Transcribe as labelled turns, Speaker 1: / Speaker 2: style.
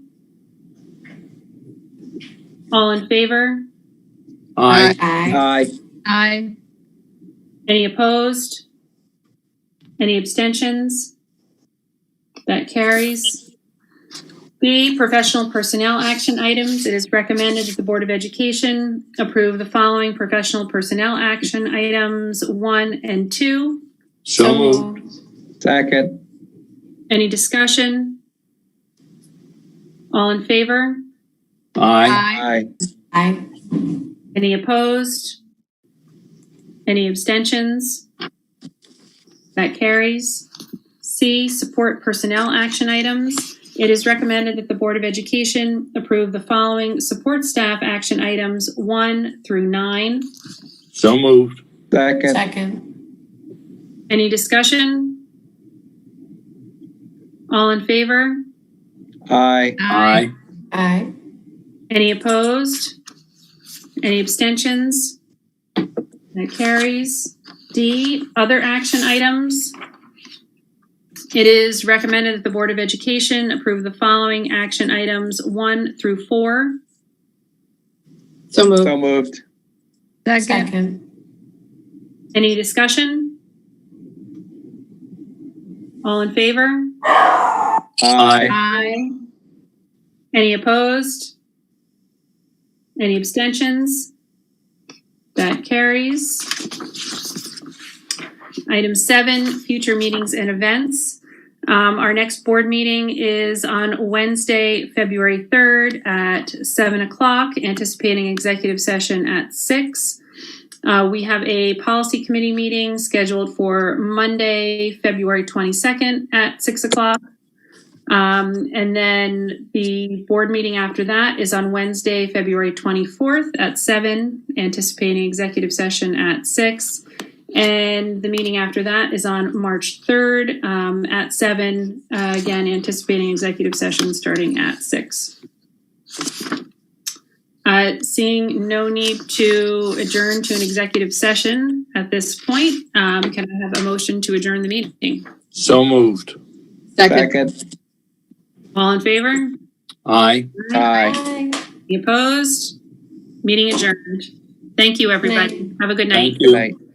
Speaker 1: All in favor?
Speaker 2: Aye.
Speaker 3: Aye.
Speaker 4: Aye.
Speaker 5: Aye.
Speaker 1: Any opposed? Any abstentions? That carries. B, professional personnel action items. It is recommended that the Board of Education approve the following professional personnel action items one and two.
Speaker 2: So moved.
Speaker 4: Second.
Speaker 1: Any discussion? All in favor?
Speaker 2: Aye.
Speaker 5: Aye.
Speaker 4: Aye.
Speaker 3: Aye.
Speaker 1: Any opposed? Any abstentions? That carries. C, support personnel action items. It is recommended that the Board of Education approve the following support staff action items one through nine.
Speaker 2: So moved.
Speaker 4: Second.
Speaker 3: Second.
Speaker 1: Any discussion? All in favor?
Speaker 4: Aye.
Speaker 2: Aye.
Speaker 3: Aye.
Speaker 1: Any opposed? Any abstentions? That carries. D, other action items. It is recommended that the Board of Education approve the following action items one through four.
Speaker 5: So moved.
Speaker 4: So moved.
Speaker 5: Second.
Speaker 3: Second.
Speaker 1: Any discussion? All in favor?
Speaker 4: Aye.
Speaker 5: Aye.
Speaker 1: Any opposed? Any abstentions? That carries. Item seven, future meetings and events. Um, our next board meeting is on Wednesday, February third at seven o'clock, anticipating executive session at six. Uh, we have a policy committee meeting scheduled for Monday, February twenty-second at six o'clock. Um, and then the board meeting after that is on Wednesday, February 24th at 7, anticipating executive session at 6. And the meeting after that is on March 3rd um, at 7, uh, again, anticipating executive session starting at 6. Uh, seeing no need to adjourn to an executive session at this point, um, can I have a motion to adjourn the meeting?
Speaker 2: So moved.
Speaker 5: Second.
Speaker 4: Second.
Speaker 1: All in favor?
Speaker 2: Aye.
Speaker 4: Aye.
Speaker 3: Aye.
Speaker 1: Any opposed? Meeting adjourned. Thank you, everybody. Have a good night.
Speaker 2: Thank you.
Speaker 4: Aye.